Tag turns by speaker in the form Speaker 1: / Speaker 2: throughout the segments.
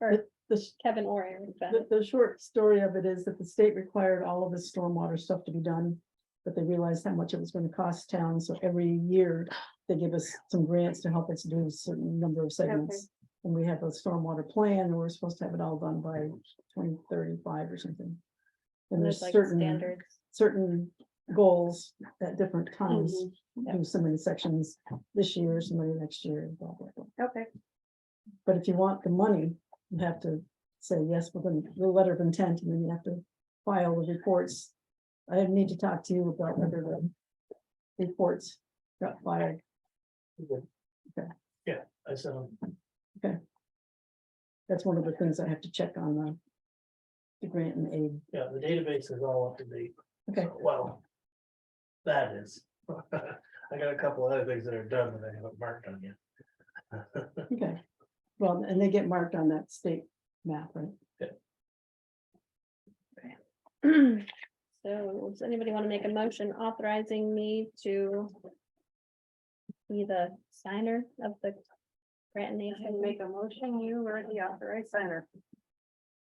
Speaker 1: or
Speaker 2: The, s-
Speaker 1: Kevin or Aaron. got
Speaker 2: the,
Speaker 1: it.
Speaker 2: the short story of it is that the state required all of the stormwater stuff to be done. But they realized how much it was gonna cost town, so every year they give us some grants to help us do a certain number of segments. And we have a stormwater plan, and we're supposed to have it all done by twenty thirty-five or something. And there's
Speaker 1: There's like
Speaker 2: certain,
Speaker 1: standards.
Speaker 2: certain goals at different times,
Speaker 1: Mhm.
Speaker 2: do so many sections this year, so many next year, blah, blah, blah.
Speaker 1: Okay,
Speaker 2: But if you want the money, you have to say yes with a the letter of intent, and then you have to file the reports. I need to talk to you about whether the reports got filed.
Speaker 3: I um, saw.
Speaker 2: That's one of the things I have to check on the the grant and aid.
Speaker 3: yeah, the database is all up to date.
Speaker 2: Okay.
Speaker 3: So, Well. That is. I got a couple other things that are done that I haven't marked on yet.
Speaker 2: Okay. Well, and they get marked on that state map, right?
Speaker 1: so does anybody want to make a motion authorizing me to be the signer of the grant and
Speaker 4: And
Speaker 1: aid?
Speaker 4: make a motion, you were the authorized signer.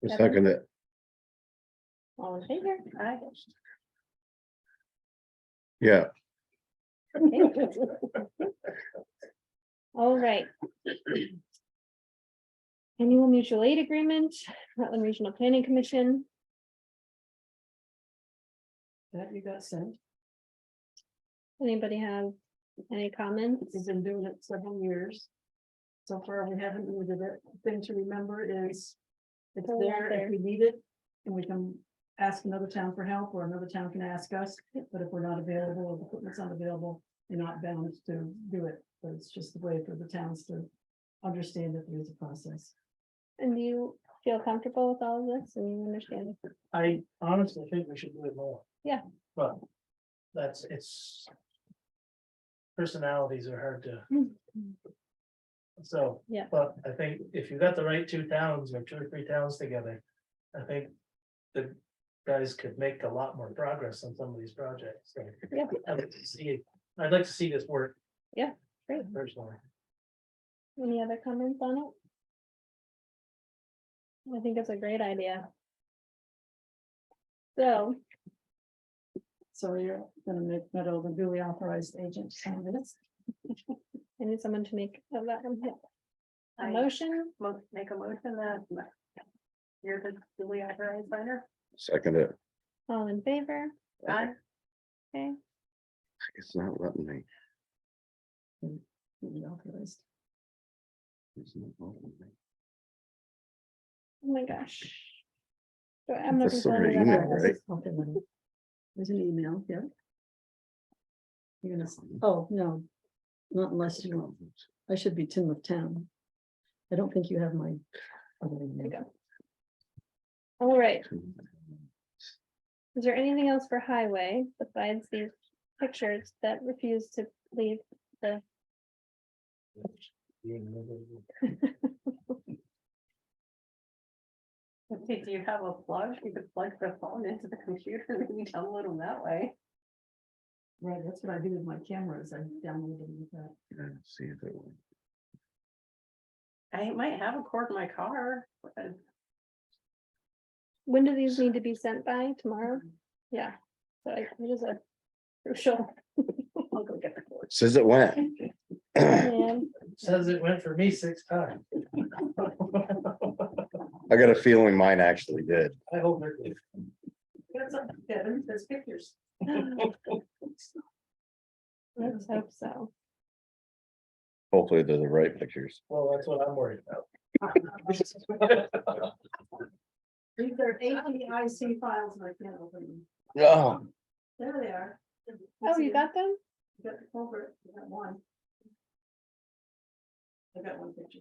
Speaker 5: I
Speaker 1: Kevin?
Speaker 5: Second it.
Speaker 1: All in favor?
Speaker 4: Aye.
Speaker 5: Yeah,
Speaker 1: All right. Annual mutual aid agreement, Rutland Regional Planning Commission.
Speaker 2: That you got sent.
Speaker 1: Anybody have any comments?
Speaker 2: We've been doing it several years. So far, we haven't needed it. Thing to remember is
Speaker 1: It's
Speaker 2: it's there
Speaker 1: there.
Speaker 2: if we need it and we can ask another town for help or another town can ask us. But if we're not available, or the equipment's not available, you're not bound to do it. But it's just the way for the towns to understand that there's a process.
Speaker 1: And do you feel comfortable with all of this and you understand?
Speaker 3: I honestly think we should do it more.
Speaker 1: Yeah.
Speaker 3: But. That's, it's. Personalities are hard to. So.
Speaker 1: Hmm. Yeah.
Speaker 3: But I think if you got the right two towns or two or three towns together, I think the guys could make a lot more progress on some of these projects. so.
Speaker 1: Yeah.
Speaker 3: I'd like to see, it- I'd like to see this work.
Speaker 1: Yeah, great.
Speaker 3: Personally,
Speaker 1: Any other comments on it? I think it's a great idea. So,
Speaker 2: So you're gonna make Meadow the duly authorized agent to sign this.
Speaker 1: I need someone to make a mo- a
Speaker 4: I
Speaker 1: motion.
Speaker 4: mo- make a motion that you're the duly authorized signer.
Speaker 5: second it.
Speaker 1: All in favor?
Speaker 4: Aye.
Speaker 1: Okay,
Speaker 5: It's not letting me.
Speaker 2: duly authorized.
Speaker 5: It's not letting me.
Speaker 1: oh my gosh. So I'm
Speaker 5: That's
Speaker 1: looking for
Speaker 5: sort of
Speaker 1: another
Speaker 5: email,
Speaker 1: one.
Speaker 5: right?
Speaker 2: Okay, then. There's an email, yeah. You're gonna, s- oh, no. Not unless you want, I should be Tim of Town. I don't think you have my. other
Speaker 1: There
Speaker 2: email.
Speaker 1: you go. All right, is there anything else for highway besides these pictures that refuse to leave?
Speaker 4: Okay, do you have a plug? You could plug the phone into the computer and maybe download them that way.
Speaker 2: Right, that's what I do with my cameras, I download them with that.
Speaker 5: Yeah, See if it will.
Speaker 4: I might have a cord in my car. but
Speaker 1: When do these need to be sent by tomorrow? Yeah, so I- it is a crucial.
Speaker 4: I'll go get the cord.
Speaker 5: Says it went. I
Speaker 1: plan.
Speaker 3: says it went for me six times.
Speaker 5: got a feeling mine actually did.
Speaker 3: I hope it did.
Speaker 4: That's up there. There's pictures.
Speaker 1: Let's hope so.
Speaker 5: Hopefully they're the right pictures.
Speaker 3: Well, that's what I'm worried about.
Speaker 2: These are APIC files and I can't open them.
Speaker 5: No.
Speaker 2: There they are.
Speaker 1: Oh, you got them?
Speaker 2: You got the culvert, you got one. I got one picture.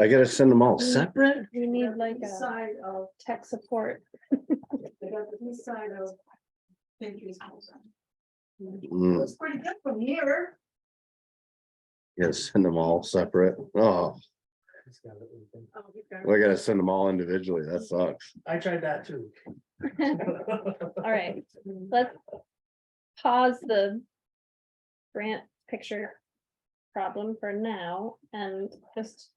Speaker 5: I gotta send them all
Speaker 1: Mm.
Speaker 5: separate?
Speaker 1: We need like
Speaker 2: East
Speaker 1: a
Speaker 2: Side of,
Speaker 1: tech support.
Speaker 2: they got the east side of. Patriots.
Speaker 5: Mm,
Speaker 2: Looks pretty good from here.
Speaker 5: Yeah, send them all separate. Oh,
Speaker 2: Oh,
Speaker 5: I gotta send them all individually. That sucks.
Speaker 3: I tried that too.
Speaker 1: All right,
Speaker 2: Hmm.
Speaker 1: let's pause the grant picture problem for now and just